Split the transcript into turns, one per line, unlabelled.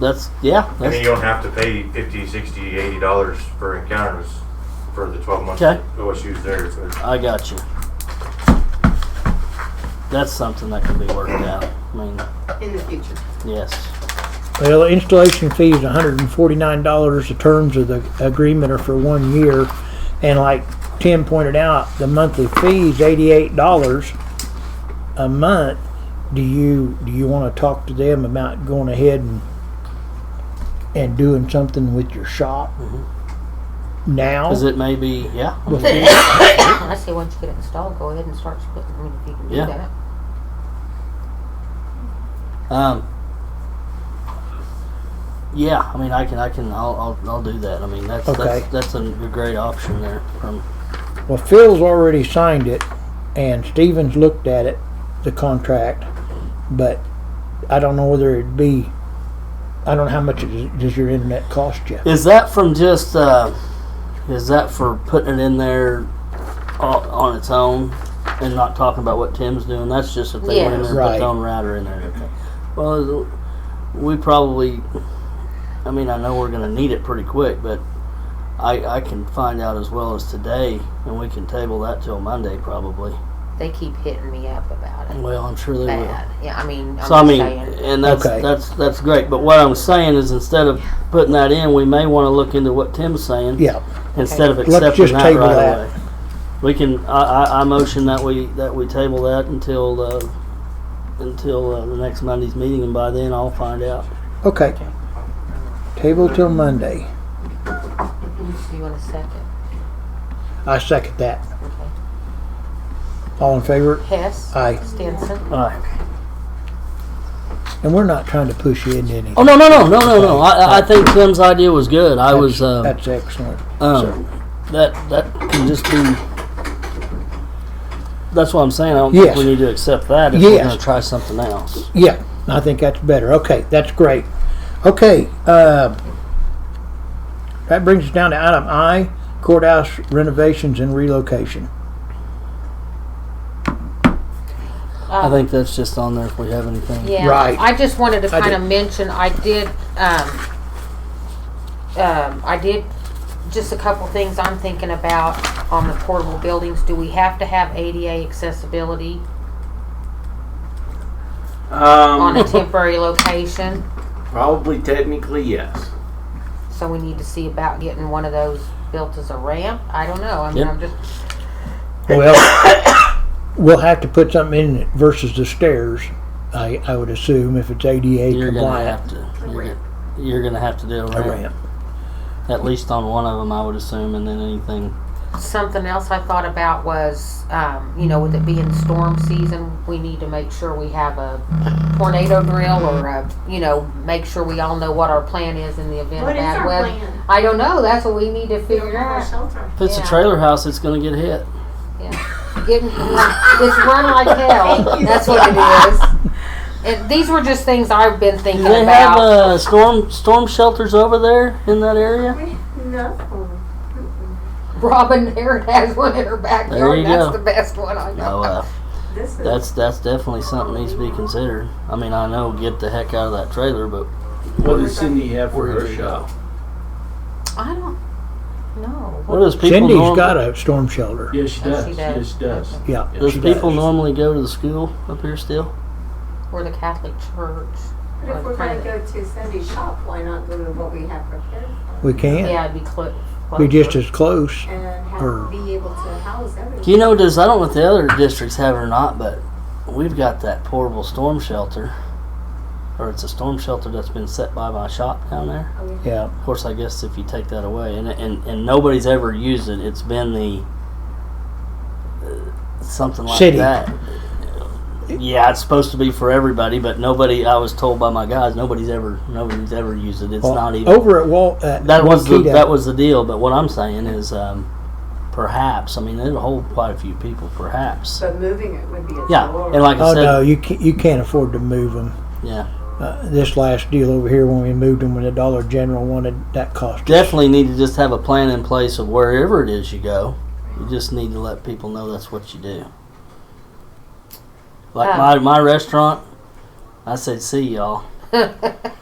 That's yeah.
And then
That's,
you don't have to pay 50 60 80 dollars for encounters for the 12 months
Okay.
OSU's there. So it's-
I got you. That's something that can be worked out. I mean,
in the future.
yes.
Well, the installation fee is hundred and forty-nine dollars. The terms of the agreement are for one year. And like Tim pointed out, the monthly fee is eighty-eight dollars a month. Do you, do you wanna talk to them about going ahead and, and doing something with your shop? Now?
Because it may be yeah.
I say once you get it installed, go ahead and start splitting. I mean, if you can do
Yeah.
that.
Um. Yeah, I mean, I can, I can, I'll, I'll, I'll do that. I mean, that's
Okay.
that's, that's a great option there. From
Well, Phil's already signed it, and Stevens looked at it, the contract, but I don't know whether it'd be, I don't know how much it- does your internet cost you?
Is that from just? Uh, is that for putting it in there on, on its own and not talking about what Tim's doing? That's just if they went in there and put
Right.
their own router in there. and everything. Well, we probably. I mean, I know we're going to need it pretty quick, but I, I can find out as well as today, and we can table that till Monday probably.
They keep hitting me up about it.
Well, I'm sure they will.
Bad. Yeah, I mean, I'm
So I mean,
just saying.
and that's
Okay.
that's that's great. But what I'm saying is, instead of putting that in, we may want to look into what Tim's saying
Yeah,
instead of
Let's
accepting
just
that
table
right
that.
away. We can. I, I, I motion that we that we table that until uh, until uh, the next Monday's meeting, and by then I'll find out.
okay. Table till Monday.
You want a second?
I second that.
Okay.
All in favor?
Hess.
Aye.
Stinson.
All right.
And we're not trying to push you into anything.
Oh no no no no no no! I, I- I think Tim's idea was good. I was.
That's-
Um,
That's excellent.
Um, that that can just be. That's what I'm saying. I don't
Yes.
think we need to accept that if we're
Yes.
going to try something else.
Yeah, I think that's better. Okay, that's great. Okay, uh, that brings us down to item I, courthouse renovations and relocation.
I think that's just on there if we have anything.
Yeah.
Right.
I just wanted to
I
kind of
did-
mention, I did, um, um, I did, just a couple things I'm thinking about on the portable buildings. Do we have to have ADA accessibility on
Um,
a temporary location?
probably technically yes.
So we need to see about getting one of those built as a ramp? I don't know. I mean,
Yep.
I'm just,
Well, we'll have to put something in it versus the stairs, I, I would assume, if it's ADA
You're going to
compliant.
have to. You're, gonna- you're going to have to do a
A
ramp,
ramp.
at least on one of them, I would assume, and then anything.
Something else I thought about was, um, you know, with it being storm season, we need to make sure we have a tornado drill or a, you know, make sure we all know what our plan is in the event
What is
of bad
our
weather.
plan?
I don't know. That's what we need to
We don't
figure
have a
out.
shelter.
If it's
Yeah.
a trailer house, it's going to get hit.
Getting, it's run like hell. That's what it is. And these were just things I've been
Do
thinking
they have
about.
uh, storm storm shelters over there in that area?
No.
Robin Harrod has one in
There
her backyard.
you
That's
go.
the best one I
No,
know.
uh,
This is.
that's that's definitely something that needs to be considered. I mean, I know get the heck out of that trailer, but
What does Cindy have for her
Where'd you
shop?
I don't know.
what does people?
Cindy's
norm-
got a storm shelter.
Yes, she
Oh, she
does. She
does.
does. She does.
Yeah.
Yeah,
Does
she
people
does.
normally go to the school up here still?
Or the Catholic Church.
But if we're gonna go to Cindy's shop, why not go to what we have prepared
We can.
Yeah, it'd be close.
We're just as close.
and
Or-
have, be able to house everything?
You know, does I don't know if the other districts have it or not, but we've got that portable storm shelter, or it's a storm shelter that's been set by my shop down there.
Yeah.
Of course, I guess if you take that away, and and, and nobody's ever used it, it's been the uh, something like
City.
that. Yeah, it's supposed to be for everybody, but nobody. I was told by my guys, nobody's ever, nobody's ever used it. It's
Well, oh,
not even
Over at Wal, at
that was the,
Waukeeta,
that was the deal. But what I'm saying is, um, perhaps I mean it'll hold quite a few people, perhaps.
So moving it would be a.
Yeah,
chore.
and like I
Oh,
said,
no, you can't, you can't afford to move them.
yeah,
Uh, this last deal over here, when we moved them, when the Dollar General wanted, that cost us.
definitely need to just have a plan in place of wherever it is you go. You just need to let people know that's what you do. Like
Uh.
my my restaurant, I said, "See y'all."